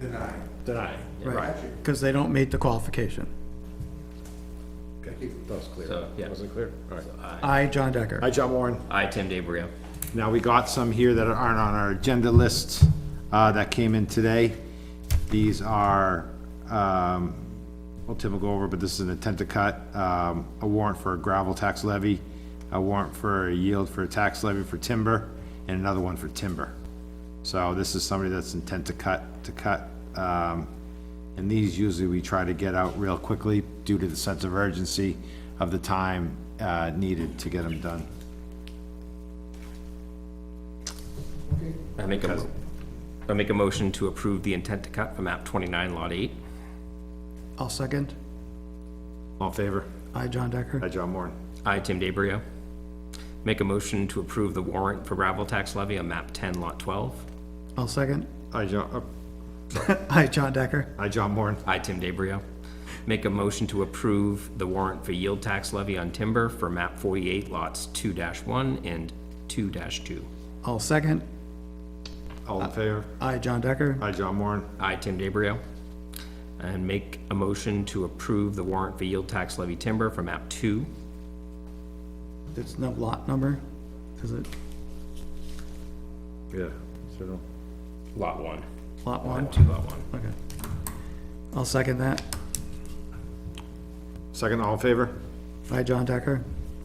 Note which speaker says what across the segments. Speaker 1: deny.
Speaker 2: deny.
Speaker 3: Right, because they don't meet the qualification.
Speaker 2: That was clear.
Speaker 4: So, yeah.
Speaker 2: Wasn't clear? All right.
Speaker 3: I, John Decker.
Speaker 2: Hi, John Warren.
Speaker 4: I, Tim DeBrio.
Speaker 2: Now, we got some here that aren't on our agenda list, uh, that came in today. These are, um, well, Tim will go over, but this is an intent to cut, um, a warrant for a gravel tax levy, a warrant for a yield for a tax levy for timber, and another one for timber. So this is somebody that's intent to cut, to cut, um, and these usually we try to get out real quickly due to the sense of urgency of the time, uh, needed to get them done.
Speaker 4: I make a, mo- I make a motion to approve the intent to cut for map twenty-nine lot eight.
Speaker 3: I'll second.
Speaker 2: All in favor?
Speaker 3: I, John
Speaker 2: Hi,
Speaker 3: Decker.
Speaker 2: John Moore.
Speaker 4: I, Tim DeBrio. Make a motion to approve the warrant for gravel tax levy on map ten lot twelve.
Speaker 3: I'll second.
Speaker 2: Hi, John, uh,
Speaker 3: I, John Decker.
Speaker 2: hi, John Moore.
Speaker 4: I, Tim DeBrio. Make a motion to approve the warrant for yield tax levy on timber for map forty-eight lots two one and two two.
Speaker 3: I'll second.
Speaker 2: All
Speaker 4: Uh,
Speaker 2: in favor?
Speaker 3: I, John Decker.
Speaker 2: Hi, John Moore.
Speaker 4: I, Tim DeBrio. And make a motion to approve the warrant for yield tax levy timber for map two.
Speaker 3: It's no lot number, is it?
Speaker 2: Yeah. so-
Speaker 4: Lot one.
Speaker 3: Lot one?
Speaker 4: Two lot one.
Speaker 3: Okay. I'll second that.
Speaker 2: Second, all in favor?
Speaker 3: I, John Decker.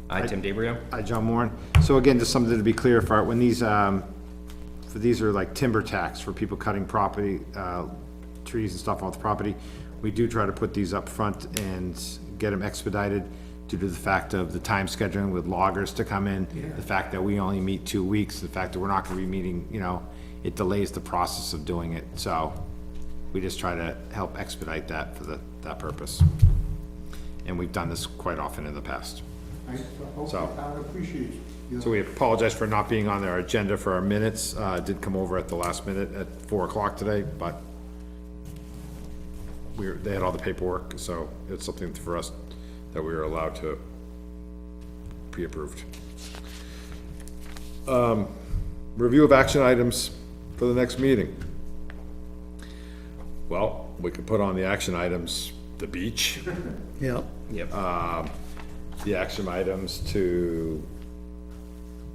Speaker 4: I, Tim DeBrio.
Speaker 2: Hi, John Moore. So again, just something to be clear for, when these, um, for these are like timber tax for people cutting property, uh, trees and stuff off the property. We do try to put these up front and get them expedited due to the fact of the time scheduling with loggers to come in, the fact that we only meet two weeks, the fact that we're not gonna be meeting, you know, it delays the process of doing it, so we just try to help expedite that for the, that purpose. And we've done this quite often in the past.
Speaker 1: I hope the
Speaker 2: So-
Speaker 1: town appreciates your
Speaker 2: So we apologize for not being on our agenda for our minutes. Uh, it did come over at the last minute at four o'clock today, but we were, they had all the paperwork, so it's something for us that we were allowed to pre-approved. Um, Review of action items for the next meeting. Well, we could put on the action items, the beach,
Speaker 3: Yep.
Speaker 2: the action items to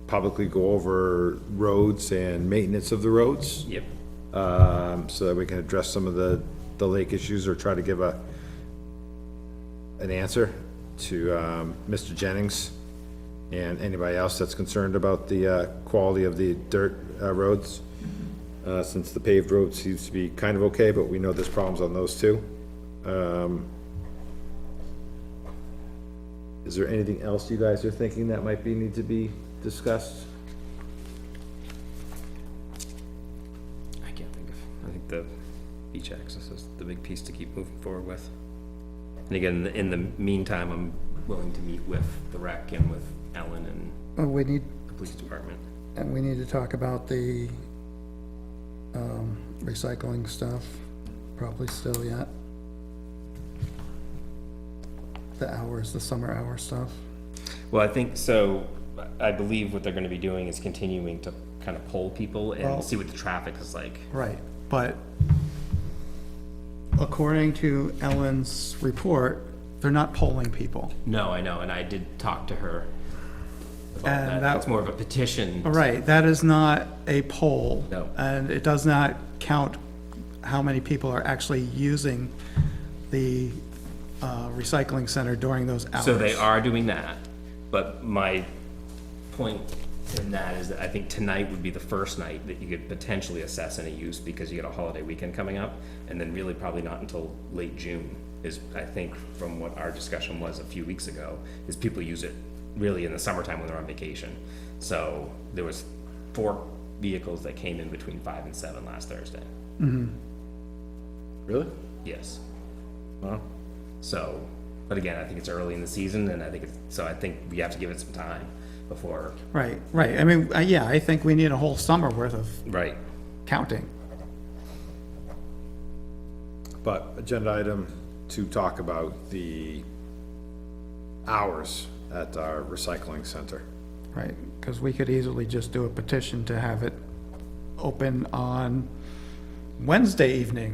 Speaker 2: publicly go over roads and maintenance of the roads,
Speaker 4: Yep.
Speaker 2: um, so that we can address some of the, the lake issues or try to give a, an answer to, um, Mr. Jennings and anybody else that's concerned about the, uh, quality of the dirt, uh, roads. Uh, since the paved road seems to be kind of okay, but we know there's problems on those too. Um, Is there anything else you guys are thinking that might be, need to be discussed?
Speaker 4: I can't think of, I think the beach access is the big piece to keep moving forward with. And again, in the meantime, I'm willing to meet with the rec and with Ellen and
Speaker 3: Uh, We need,
Speaker 4: the police department.
Speaker 3: and we need to talk about the, um, recycling stuff, probably still yet. The hours, the summer hour stuff.
Speaker 4: Well, I think, so, I believe what they're gonna be doing is continuing to kind of poll people
Speaker 3: Well-
Speaker 4: and see what the traffic is like.
Speaker 3: Right, but according to Ellen's report, they're not polling people.
Speaker 4: No, I know, and I did talk to her about
Speaker 3: And
Speaker 4: that.
Speaker 3: that-
Speaker 4: That's more of a petition.
Speaker 3: All right, that is not a poll.
Speaker 4: No.
Speaker 3: And it does not count how many people are actually using the uh, recycling center during those hours.
Speaker 4: So they are doing that, but my point in that is that I think tonight would be the first night that you could potentially assess any use because you got a holiday weekend coming up, and then really probably not until late June is, I think, from what our discussion was a few weeks ago, is people use it really in the summertime when they're on vacation. So there was four vehicles that came in between five and seven last Thursday.
Speaker 2: Really?
Speaker 4: Yes. So, but again, I think it's early in the season, and I think it's, so I think we have to give it some time before.
Speaker 3: Right, right. I mean, uh, yeah, I think we need a whole summer worth of
Speaker 4: Right.
Speaker 3: counting.
Speaker 2: But agenda item to talk about the hours at our recycling center.
Speaker 3: Right, because we could easily just do a petition to have it open on Wednesday evening